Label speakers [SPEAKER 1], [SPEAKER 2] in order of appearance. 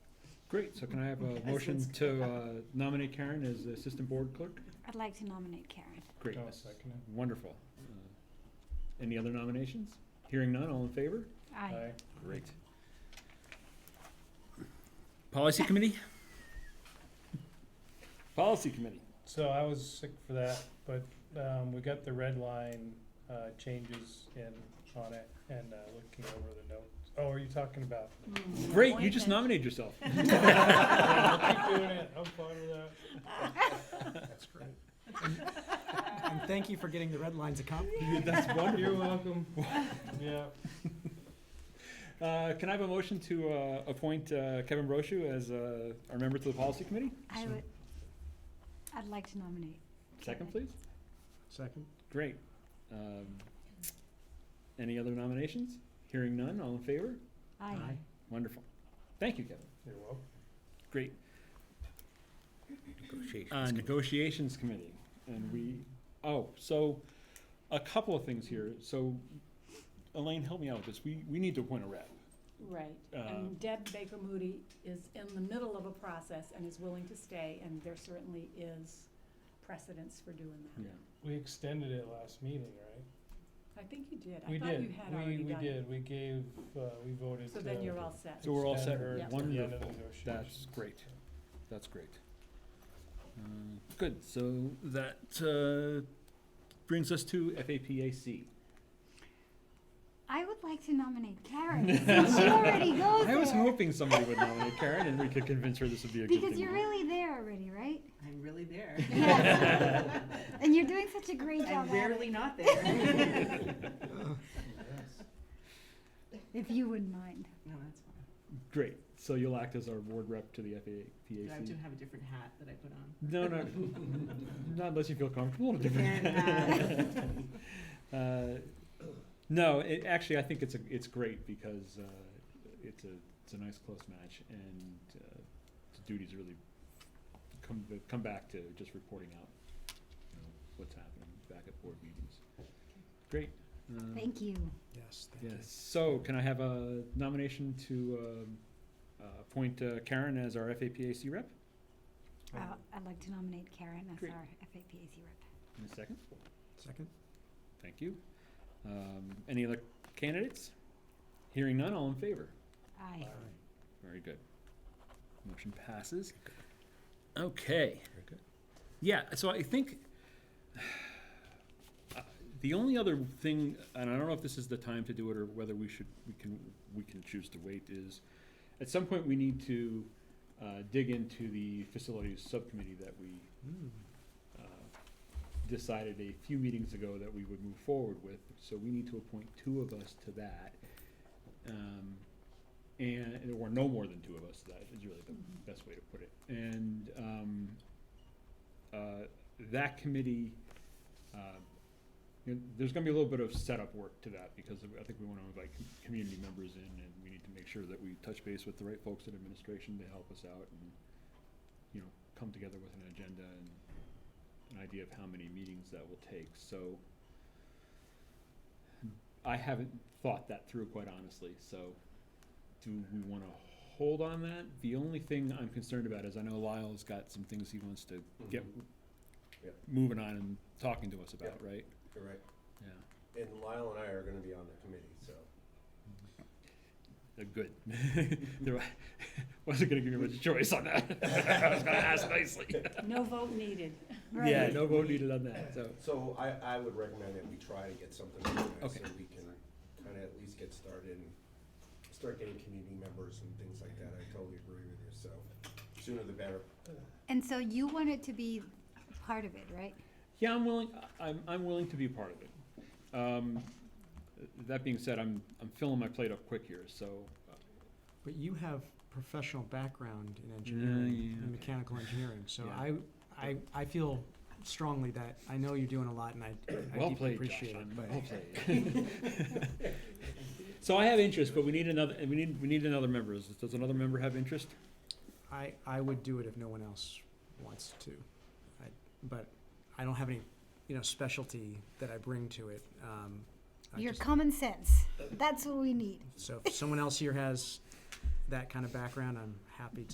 [SPEAKER 1] Great, so can I have a
[SPEAKER 2] As
[SPEAKER 1] motion
[SPEAKER 2] it's-
[SPEAKER 1] to uh, nominate Karen as the assistant board clerk?
[SPEAKER 2] I'd like to nominate Karen.
[SPEAKER 1] Great,
[SPEAKER 3] I'll Oh, second it.
[SPEAKER 1] wonderful. Uh, Any other nominations? Hearing none, all in favor?
[SPEAKER 2] Aye.
[SPEAKER 1] Great. Policy committee? Policy committee,
[SPEAKER 3] So I was sick for that, but, um, we got the red line, uh, changes in, on it and, uh, looking over the notes. Oh, are you talking about?
[SPEAKER 2] Mm.
[SPEAKER 1] great, you just
[SPEAKER 2] Appointment.
[SPEAKER 1] nominated yourself.
[SPEAKER 3] Keep doing it, I'm fine with that.
[SPEAKER 4] That's great. And and thank you for getting the red lines accomplished.
[SPEAKER 1] That's wonderful.
[SPEAKER 3] You're welcome. Yeah,
[SPEAKER 1] Uh, Can I have a motion to uh, appoint uh, Kevin Brochu as uh, our member to the policy committee?
[SPEAKER 2] I would, I'd like to nominate.
[SPEAKER 1] Second, please.
[SPEAKER 4] Second?
[SPEAKER 1] Great. Um, Any other nominations? Hearing none, all in favor?
[SPEAKER 2] Aye.
[SPEAKER 1] Wonderful. Thank you, Kevin.
[SPEAKER 3] you're welcome.
[SPEAKER 1] Great. Uh,
[SPEAKER 4] Negotiations.
[SPEAKER 1] Negotiations Committee, and we, oh, so, a couple of things here. So, Elaine, help me out with this. We, we need to appoint a rep.
[SPEAKER 5] Right,
[SPEAKER 1] Um,
[SPEAKER 5] and Deb Baker Moody is in the middle of a process and is willing to stay, and there certainly is precedence for doing that.
[SPEAKER 3] We extended it last meeting,
[SPEAKER 5] I
[SPEAKER 3] right?
[SPEAKER 5] think you did,
[SPEAKER 3] We
[SPEAKER 5] I thought you
[SPEAKER 3] did,
[SPEAKER 5] had
[SPEAKER 3] we,
[SPEAKER 5] already
[SPEAKER 3] we
[SPEAKER 5] done it.
[SPEAKER 3] did, we gave, uh, we voted to.
[SPEAKER 5] So then you're all set.
[SPEAKER 1] So we're all set.
[SPEAKER 3] extend her
[SPEAKER 5] Yep.
[SPEAKER 3] to the end of
[SPEAKER 1] Wonderful.
[SPEAKER 3] negotiations.
[SPEAKER 1] That's great. That's great. Uh, Good, so that uh, brings us to FAPAC.
[SPEAKER 2] I would like to nominate Karen, since she already goes
[SPEAKER 1] I was
[SPEAKER 2] there.
[SPEAKER 1] hoping somebody would nominate Karen, and we could convince her this would be a good thing.
[SPEAKER 2] Because you're really there already, right?
[SPEAKER 6] I'm really there.
[SPEAKER 2] Yes. And you're doing such a great
[SPEAKER 6] I'm
[SPEAKER 2] job at
[SPEAKER 6] rarely
[SPEAKER 2] it,
[SPEAKER 6] not there.
[SPEAKER 3] Yes.
[SPEAKER 2] if you wouldn't mind.
[SPEAKER 6] No, that's fine.
[SPEAKER 1] Great, so you'll act as our board rep to the
[SPEAKER 6] But I
[SPEAKER 1] FAPAC.
[SPEAKER 6] do have a different hat that I put on.
[SPEAKER 1] No, no, not unless you feel comfortable.
[SPEAKER 6] Can,
[SPEAKER 1] Uh, No, it, actually, I think it's a, it's great because uh, it's a, it's a nice close match and uh, the duties really come, come back to just reporting out, you know, what's happening back at board meetings. Great. Um,
[SPEAKER 2] Thank you.
[SPEAKER 4] Yes, thank you.
[SPEAKER 1] Yes, so can I have a nomination to um, uh, appoint uh, Karen as our FAPAC rep?
[SPEAKER 2] Uh, I'd like to nominate Karen as
[SPEAKER 1] Great.
[SPEAKER 2] our FAPAC rep.
[SPEAKER 1] In a second,
[SPEAKER 4] Second?
[SPEAKER 1] thank you. Um, Any other candidates? Hearing none, all in favor?
[SPEAKER 2] Aye.
[SPEAKER 1] Very good. Motion passes. Okay. Yeah, so I think uh, the only other thing, and I don't know if this is the time to do it or whether we should, we can, we can choose to wait, is at some point we need to uh, dig into the facilities subcommittee that we
[SPEAKER 4] Hmm.
[SPEAKER 1] uh, decided a few meetings ago that we would move forward with, so we need to appoint two of us to that. Um, and, or no more than two of us, to that is really the
[SPEAKER 5] Mhm.
[SPEAKER 1] best way to put it. And, um, uh, that committee, uh, you know, there's gonna be a little bit of setup work to that, because I think we wanna invite com- community members in, and we need to make sure that we touch base with the right folks in administration to help us out, and, you know, come together with an agenda and an idea of how many meetings that will take, so I haven't thought that through quite honestly, so do we wanna hold on that? The only thing I'm concerned about is I know Lyle's got some things he wants to get
[SPEAKER 7] Yep.
[SPEAKER 1] moving on and talking to us about, right?
[SPEAKER 7] You're right.
[SPEAKER 1] Yeah,
[SPEAKER 7] And Lyle and I are gonna be on the committee, so.
[SPEAKER 1] Uh, good. There wa- Wasn't gonna give you much choice on that. I was gonna ask nicely.
[SPEAKER 5] No vote needed.
[SPEAKER 1] Yeah,
[SPEAKER 2] Right.
[SPEAKER 1] no vote needed on that, so.
[SPEAKER 7] So I, I would recommend that we try to get something organized
[SPEAKER 1] Okay.
[SPEAKER 7] so we can kinda at least get started and start getting community members and things like that. I totally agree with you, so sooner the better.
[SPEAKER 2] And so you want it to be part of it, right?
[SPEAKER 1] Yeah, I'm willing, I- I'm, I'm willing to be a part of it. Um, That being said, I'm, I'm filling my plate up quick here, so. uh,
[SPEAKER 4] But you have professional background in
[SPEAKER 1] Mm, yeah,
[SPEAKER 4] engineering,
[SPEAKER 1] okay.
[SPEAKER 4] in mechanical engineering, so
[SPEAKER 1] Yeah.
[SPEAKER 4] I, I, I feel strongly that, I know you're doing a lot and I I
[SPEAKER 1] Well
[SPEAKER 4] deeply
[SPEAKER 1] played, Josh,
[SPEAKER 4] appreciate
[SPEAKER 1] I'm-
[SPEAKER 4] it, but.
[SPEAKER 1] well played. So I have interest, but we need another, and we need, we need another member. Is- Does another member have interest?
[SPEAKER 4] I, I would do it if no one else wants to. I, but I don't have any, you know, specialty that I bring to it. Um, I
[SPEAKER 2] Your
[SPEAKER 4] just-
[SPEAKER 2] common sense. That's what we need.
[SPEAKER 4] so if someone else here has that kind of background, I'm happy to.